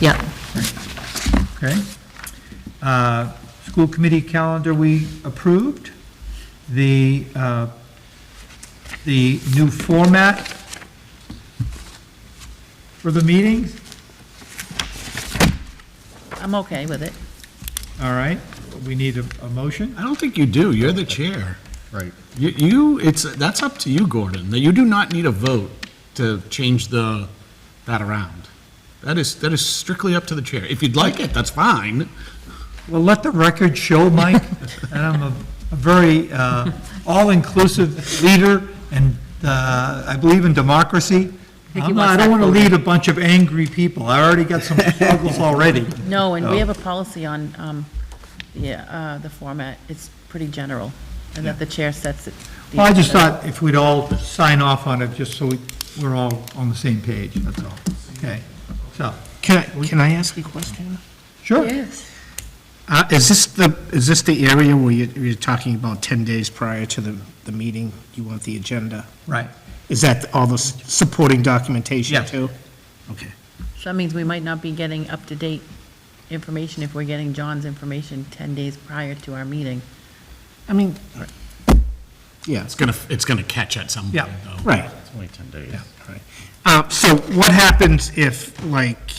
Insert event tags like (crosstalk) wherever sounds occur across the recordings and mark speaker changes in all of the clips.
Speaker 1: Yeah.
Speaker 2: Okay. Uh, School committee calendar we approved. The, uh, the new format for the meetings,
Speaker 1: I'm okay with it.
Speaker 2: all right, we need a, a motion.
Speaker 3: I don't think you do. You're the chair. Right. You, you, it's, that's up to you, Gordon. That You do not need a vote to change the, that around. That is, that is strictly up to the chair. If you'd like it, that's fine.
Speaker 2: Well, let the record show, Mike, that I'm a a very uh, all-inclusive leader, and uh, I believe in democracy.
Speaker 1: he wants
Speaker 2: I'm not- I don't
Speaker 1: that
Speaker 2: want to
Speaker 1: voted.
Speaker 2: lead a bunch of angry people. I already got some struggles already.
Speaker 1: No, and we
Speaker 2: Oh.
Speaker 1: have a policy on, um, yeah, uh, the format. It's pretty general, and that the chair sets it. the
Speaker 2: Well, I just
Speaker 1: agenda.
Speaker 2: thought if we'd all sign off on it, just so we- we're all on the same page, that's all. Okay, so,
Speaker 4: Can I, can I ask a question?
Speaker 2: sure.
Speaker 1: Yes.
Speaker 4: Uh, is this the, is this the area where you, you're talking about 10 days prior to the, the meeting? You want the agenda?
Speaker 2: Right,
Speaker 4: Is that all the s- supporting documentation
Speaker 2: Yes.
Speaker 4: too? Okay.
Speaker 1: So that means we might not be getting up-to-date information if we're getting John's information 10 days prior to our meeting.
Speaker 4: I mean, yeah,
Speaker 3: It's gonna, it's gonna catch at some point,
Speaker 2: Yeah.
Speaker 3: though.
Speaker 4: right.
Speaker 3: It's only 10 days.
Speaker 4: Yeah, all right. Uh, So what happens if, like,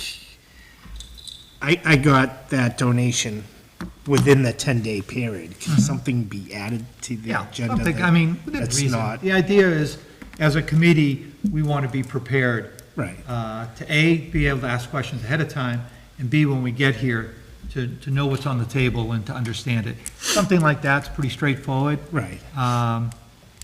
Speaker 4: I, I got that donation within the 10-day period? Can something be added to the
Speaker 2: yeah,
Speaker 4: agenda?
Speaker 2: something,
Speaker 4: that-
Speaker 2: I mean, within
Speaker 4: That's
Speaker 2: reason.
Speaker 4: not,
Speaker 2: The idea is, as a committee, we want to be prepared
Speaker 4: right,
Speaker 2: uh, to A, be able to ask questions ahead of time, and B, when we get here, to, to know what's on the table and to understand it. Something like that's pretty straightforward.
Speaker 4: right.
Speaker 2: Um,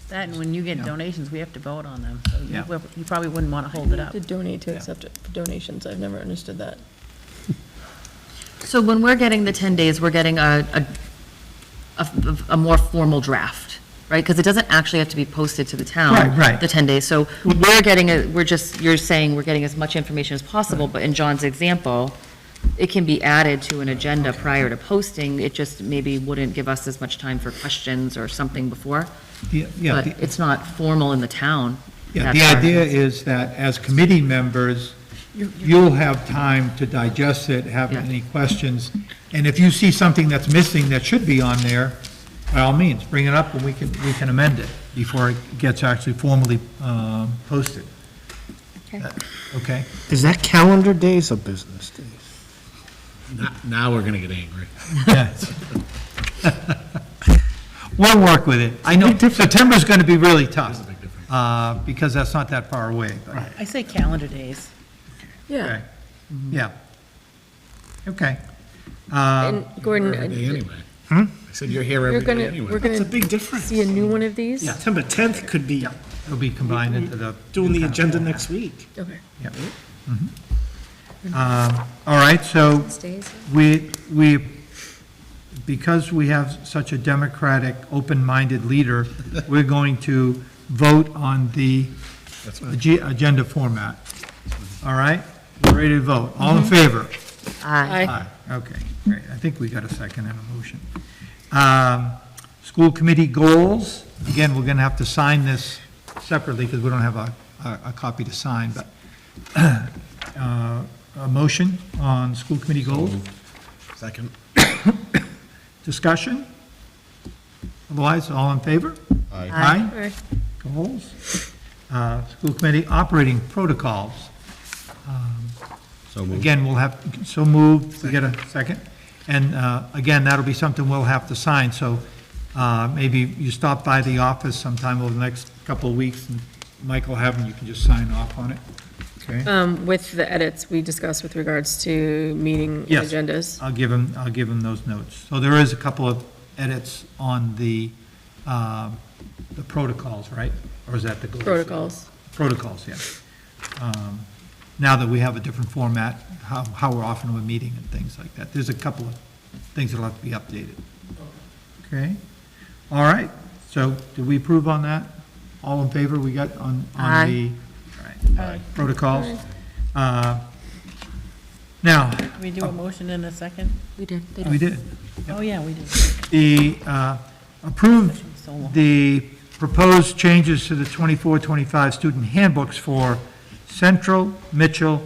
Speaker 1: That, and when you get donations, we have to vote on them. So you
Speaker 2: Yeah.
Speaker 1: will- you probably wouldn't want to hold it up.
Speaker 5: To donate to accept it- donations, I've never understood that.
Speaker 6: So when we're getting the 10 days, we're getting a, a- a, a more formal draft, right? Because it doesn't actually have to be posted to the town.
Speaker 2: Right, right.
Speaker 6: The 10 days. So we're getting, a we're just, you're saying we're getting as much information as possible, but in John's example, it can be added to an agenda prior to posting. It just maybe wouldn't give us as much time for questions or something before.
Speaker 2: the- Yeah,
Speaker 6: But
Speaker 2: the-
Speaker 6: it's not formal in the town.
Speaker 2: yeah, the
Speaker 6: That's our-
Speaker 2: idea is that as committee members, you'll have time to digest it, have
Speaker 6: Yeah.
Speaker 2: any questions, and if you see something that's missing that should be on there, by all means, bring it up and we can, we can amend it before it gets actually formally um, posted. Uh, Okay?
Speaker 4: Is that calendar days or business days?
Speaker 3: Now- Now we're gonna get angry.
Speaker 2: Yes. (laughs) We'll work with it. I know September's going to be really tough, uh, because that's not that far away. but-
Speaker 1: I say calendar days.
Speaker 5: Yeah,
Speaker 2: Okay. Yeah. Okay.
Speaker 5: and
Speaker 3: Every
Speaker 5: Gordon,
Speaker 3: day anyway. I said you're here
Speaker 5: you're
Speaker 3: every day
Speaker 5: gonna, we're
Speaker 3: anyway.
Speaker 5: gonna
Speaker 4: big difference.
Speaker 5: see a new one of these?
Speaker 2: Yeah.
Speaker 4: September 10th could be
Speaker 2: It'll be combined into the.
Speaker 4: doing the agenda next week.
Speaker 5: Okay.
Speaker 2: Yeah. Mhm. Um, All right, so we, we, because we have such a democratic, open-minded leader, we're going to vote on the ag- agenda format. All right? We're Ready to vote? All in favor?
Speaker 6: Aye.
Speaker 5: Aye.
Speaker 2: Aye, okay, great. I think we got a second and a motion. Um, School committee goals, again, we're going to have to sign this separately because we don't have a, a- a copy to sign, but (clears throat) uh, a motion on school committee goals,
Speaker 3: Second.
Speaker 2: (coughs) discussion? Otherwise, all in favor? Aye.
Speaker 5: Alright.
Speaker 2: Goals? Uh, School committee operating protocols.
Speaker 3: So
Speaker 2: Again, we'll have, so moved, we get a second. And uh, again, that'll be something we'll have to sign, so uh, maybe you stop by the office sometime over the next couple of weeks, and Michael have, and you can just sign off on it, okay?
Speaker 5: Um, with the edits we discussed with regards to meeting
Speaker 2: Yes. Uh,
Speaker 5: agendas.
Speaker 2: I'll give him, I'll give him those notes. So there is a couple of edits on the, um, the protocols, right? Or is that the goals?
Speaker 5: Protocols.
Speaker 2: Protocols, yeah. Um, Now that we have a different format, how, how we're often we're meeting and things like that. There's a couple of things that'll have to be updated. Okay? All right, so did we approve on that? All in favor, we got on,
Speaker 6: Aye.
Speaker 2: on the all right, protocols? Uh, Now,
Speaker 1: Can we do a motion in a second?
Speaker 6: We did. They did.
Speaker 2: we did.
Speaker 1: Oh, yeah, we did.
Speaker 2: The, uh, approved
Speaker 1: So long.
Speaker 2: the proposed changes to the 24-25 student handbooks for Central, Mitchell,